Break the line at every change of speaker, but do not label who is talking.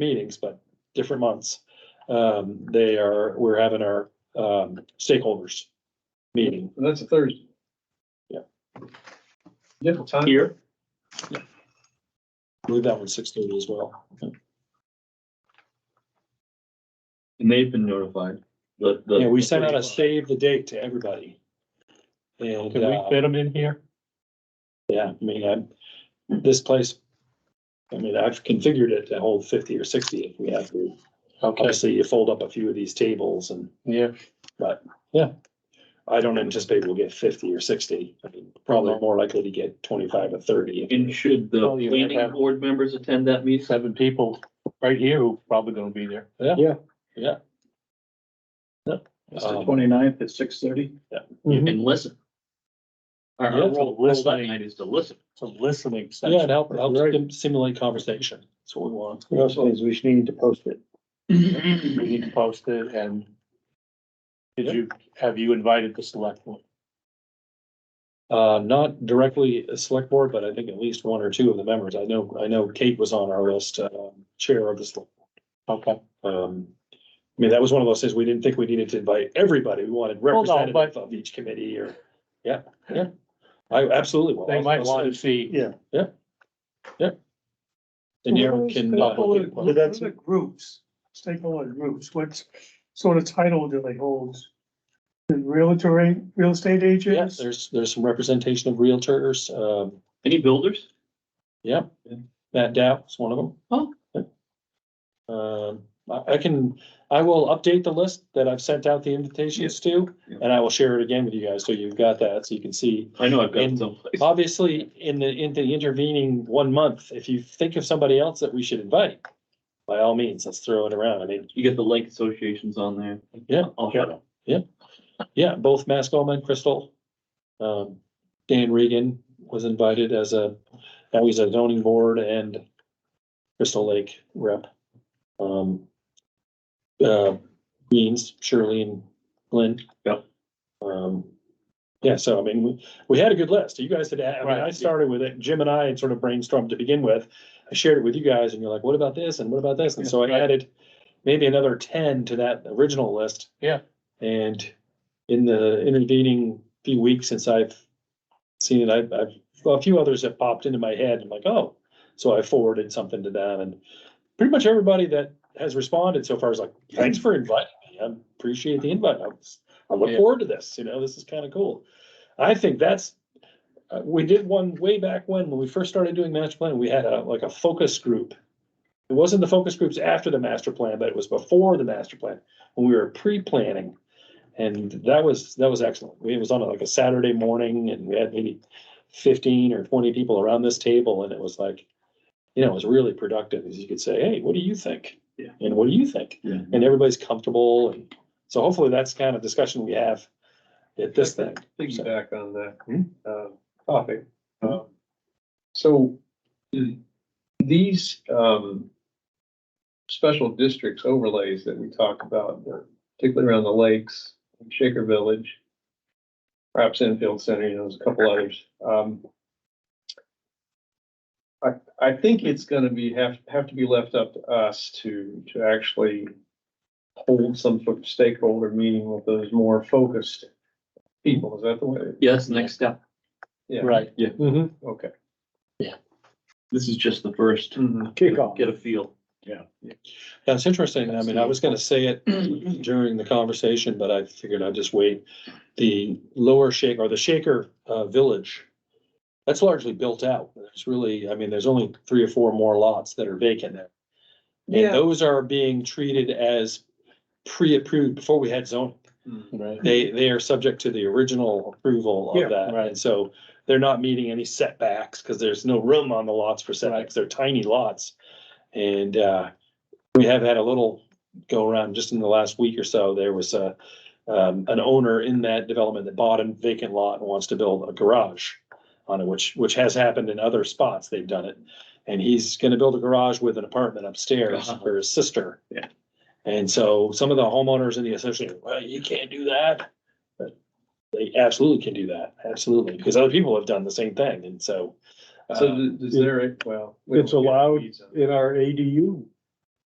meetings, but different months. Um, they are, we're having our, um, stakeholders meeting.
And that's a Thursday.
Yeah.
Different time.
Here,
I believe that one's six thirty as well.
and they've been notified. The, the.
Yeah, we sent out a save the date to everybody. And,
Can we
uh,
fit them in here?
yeah, I mean, I'm, this place, I mean, I've configured it to hold fifty or sixty if we have to.
Okay,
Obviously, you fold up a few of these tables and
yeah,
I don't anticipate we'll get fifty or sixty. I mean, Probably more likely to get twenty-five or thirty.
And should the
Oh,
Well, you might
planning
have-
board members attend that meeting?
seven people right here who probably gonna be there.
It's
Um,
the twenty-ninth at six thirty.
Mm-hmm.
And listen. Our,
Yeah,
our
it's a
role, role that
listening-
night is to listen.
Some listening
Yeah, it
session.
helps, helps
Right.
stim- stimulate conversation. That's what we want.
It also means we should need to post it.
We need to post it and did you, have you invited the select one?
Uh, not directly a select board, but I think at least one or two of the members. I know, I know Kate was on our list, um, chair of the select.
Okay,
Um, I mean, that was one of those things, we didn't think we needed to invite everybody. We wanted
no,
representative
but-
of each committee or, yeah, yeah. I absolutely will.
they might want to see,
And Aaron can, uh,
Public.
What are the groups, stakeholder groups, what sort of title do they hold? The Realtor, real estate
yeah,
agents?
there's, there's some representation of realtors, um,
Any builders?
Yeah, Matt Dow is one of them.
Oh.
Um, I, I can, I will update the list that I've sent out the invitations to,
Yeah.
and I will share it again with you guys, so you've got that, so you can see.
I know I've got
And-
some.
Obviously, in the, in the intervening one month, if you think of somebody else that we should invite, by all means, let's throw it around. I mean,
You get the lake associations on there.
Yeah.
I'll shut up.
yeah, both Mass Coleman, Crystal. Um, Dan Regan was invited as a, now he's a zoning board and Crystal Lake rep. Um, uh, Beans, Shirley and Glenn.
Yep.
Um, yeah, so I mean, we, we had a good list. You guys had, I mean, I
Right.
started with it. Jim and I had sort of brainstormed to begin with. I shared it with you guys and you're like, what about this? And what about this? And so I
Right.
added maybe another ten to that original list.
Yeah.
And in the intervening few weeks since I've seen it, I've, I've, well, a few others have popped into my head. I'm like, oh, so I forwarded something to them and pretty much everybody that has responded so far is like, thanks for inviting me. I appreciate the invite. I was, I look
Yeah.
forward to this, you know, this is kind of cool. I think that's, uh, we did one way back when, when we first started doing master plan, we had a, like a focus group. It wasn't the focus groups after the master plan, but it was before the master plan, when we were pre-planning. And that was, that was excellent. We- It was on like a Saturday morning and we had maybe fifteen or twenty people around this table and it was like, you know, it was really productive, as you could say, hey, what do you think?
Yeah.
And what do you think?
Yeah.
And everybody's comfortable and so hopefully that's the kind of discussion we have at this thing.
Piggyback on that,
Hmm?
uh, topic. Um, So th- these, um, special districts overlays that we talk about, uh, particularly around the lakes, Shaker Village, perhaps Enfield Center, you know, there's a couple others. Um, I, I think it's gonna be, have, have to be left up to us to, to actually hold some sort of stakeholder meeting with those more focused people, is that the way?
Yeah, that's the next step.
Yeah,
right,
Mhm.
okay.
This is just the first.
Mm-hmm. Kickoff.
Get a feel.
That's interesting. I mean, I was gonna say it during the conversation, but I figured I'd just wait. The lower shake or the Shaker uh Village. That's largely built out. There's really, I mean, there's only three or four more lots that are vacant there. And those are being treated as pre-approved before we had zoning.
right.
They, they are subject to the original approval
Yeah,
of that,
right.
and so they're not meeting any setbacks, because there's no room on the lots for setbacks, they're tiny lots. And, uh, we have had a little go around, just in the last week or so, there was a, um, an owner in that development that bought a vacant lot and wants to build a garage on it, which, which has happened in other spots, they've done it. And he's gonna build a garage with an apartment upstairs
Uh-huh.
for his sister.
Yeah.
And so some of the homeowners in the association, well, you can't do that. But They absolutely can do that, absolutely, because other people have done the same thing, and so.
So
uh,
th- is there, a- well. we
It's
don't get
allowed
these, uh,
in our ADU